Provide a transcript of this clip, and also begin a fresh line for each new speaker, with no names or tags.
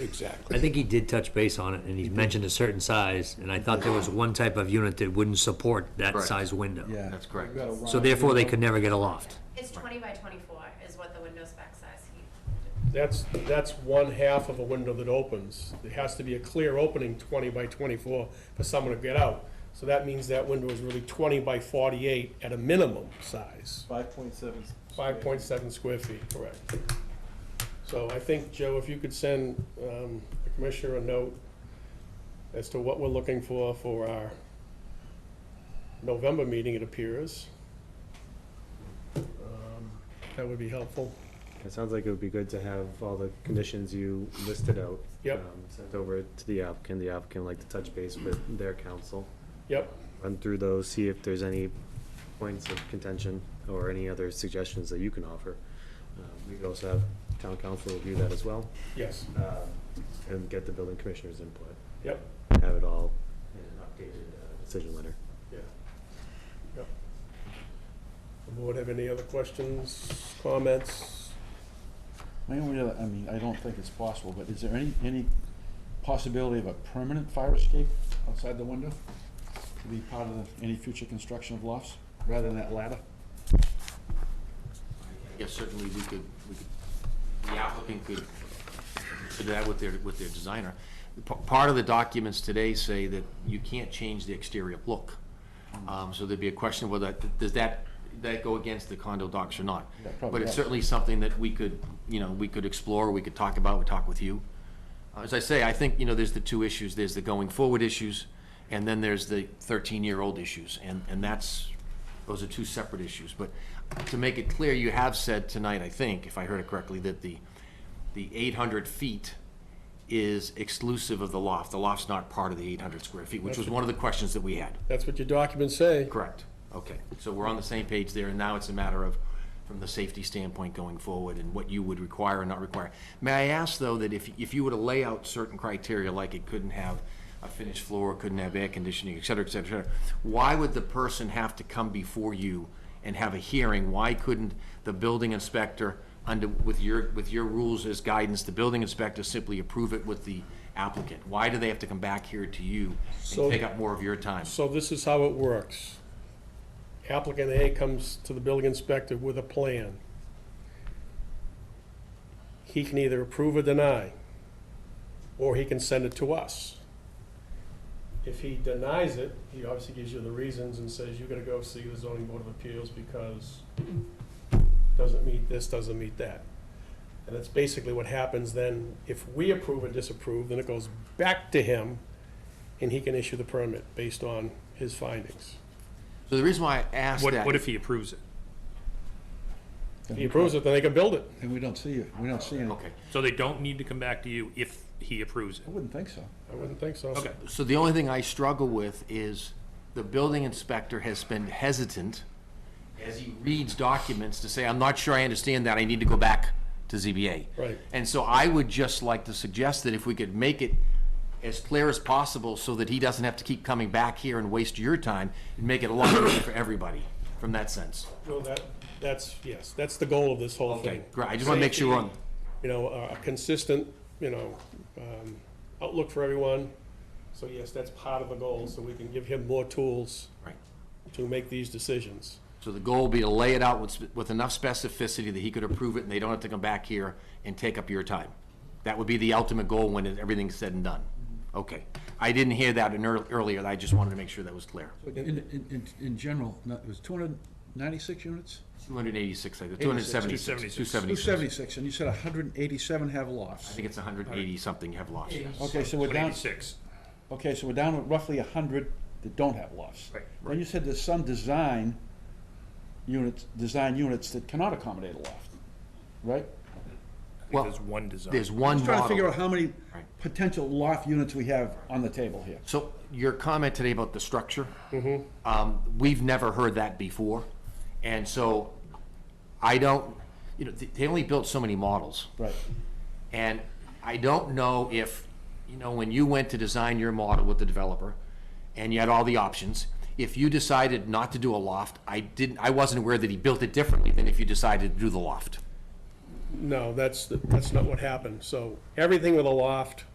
Exactly.
I think he did touch base on it, and he mentioned a certain size, and I thought there was one type of unit that wouldn't support that
Correct.
size window.
Yeah.
That's correct.
So therefore, they could never get a loft.
It's twenty by twenty-four is what the window spec says. He-
That's, that's one half of a window that opens. There has to be a clear opening twenty by twenty-four for someone to get out. So that means that window is really twenty by forty-eight at a minimum size,
Five point seven.
five point seven square feet, correct. So I think, Joe, if you could send, um, the commissioner a note as to what we're looking for for our November meeting, it appears. Um, That would be helpful.
It sounds like it would be good to have all the conditions you listed out.
Yep.
um, Sent over to the applicant, the applicant would like to touch base with their council,
Yep,
run through those, see if there's any points of contention or any other suggestions that you can offer. Um, We could also have town council review that as well,
yes,
uh, and get the building commissioner's input,
yep.
have it all in an updated uh, decision letter.
Yeah. Yep. The board have any other questions, comments?
My only other, I mean, I don't think it's possible, but is there any, any possibility of a permanent fire escape outside the window? To be part of the- any future construction of lofts, rather than that ladder?
Yes, certainly, we could, we could, the applicant could do that with their, with their designer. The pa- Part of the documents today say that you can't change the exterior look. Um, so there'd be a question whether, does that, that go against the condo docs or not?
Yeah, probably
But it's
does.
certainly something that we could, you know, we could explore, we could talk about, we talk with you. As I say, I think, you know, there's the two issues, there's the going forward issues, and then there's the thirteen-year-old issues, and, and that's, those are two separate issues, but to make it clear, you have said tonight, I think, if I heard it correctly, that the, the eight hundred feet is exclusive of the loft, the loft's not part of the eight hundred square feet, which was one of the questions that we had.
That's what your documents say.
Correct, okay, so we're on the same page there, and now it's a matter of, from the safety standpoint going forward, and what you would require and not require. May I ask, though, that if, if you were to lay out certain criteria, like it couldn't have a finished floor, couldn't have air conditioning, et cetera, et cetera, et cetera, why would the person have to come before you and have a hearing? Why couldn't the building inspector, under, with your, with your rules as guidance, the building inspector simply approve it with the applicant? Why do they have to come back here to you
So-
and take up more of your time?
So this is how it works. Applicant A comes to the building inspector with a plan. He can either approve or deny, or he can send it to us. If he denies it, he obviously gives you the reasons and says, you're gonna go see the zoning board of appeals because doesn't meet this, doesn't meet that. And that's basically what happens then. If we approve or disapprove, then it goes back to him and he can issue the permit based on his findings.
So the reason why I asked
What,
that.
what if he approves it?
Then
If
we-
he approves it, then they can build it.
Then we don't see it, we don't see it.
Okay,
So they don't need to come back to you if he approves
I
it?
wouldn't think so.
I wouldn't think so.
Okay.
so the only thing I struggle with is the building inspector has been hesitant as he reads documents to say, I'm not sure I understand that, I need to go back to ZBA.
Right.
And so I would just like to suggest that if we could make it as clear as possible so that he doesn't have to keep coming back here and waste your time and make it a lot easier for everybody from that sense.
Well, that, that's, yes, that's the goal of this whole
Okay,
thing.
great, I just want to make sure we're on,
You know, a a consistent, you know, um, outlook for everyone. So yes, that's part of the goal, so we can give him more tools
right.
to make these decisions.
So the goal would be to lay it out with, with enough specificity that he could approve it and they don't have to come back here and take up your time. That would be the ultimate goal when it- everything's said and done. Okay. I didn't hear that in earl- earlier. I just wanted to make sure that was clear.
In, in, in, in general, no, it was two hundred ninety-six units?
Two hundred eighty-six, I think, two hundred seventy-six.
276.
Two
Two seventy-six.
seventy-six, and you said hundred and eighty-seven have
I
lofts.
think it's hundred eighty something you have lost. yes.
Okay, so we're down,
186.
okay, so we're down to roughly hundred that don't have lofts.
Right,
Then you said there's some design units, design units that cannot accommodate a loft, right?
I think
Well,
There's one design.
There's one
Just trying to figure out
model.
how many
Right.
potential loft units we have on the table here.
So your comment today about the structure.
Mm-hmm.
Um, we've never heard that before. And so I don't, you know, they- they only built so many models.
Right.
And I don't know if, you know, when you went to design your model with the developer and you had all the options, if you decided not to do a loft, I didn't, I wasn't aware that he built it differently than if you decided to do the loft.
No, that's, that's not what happened. So everything with a loft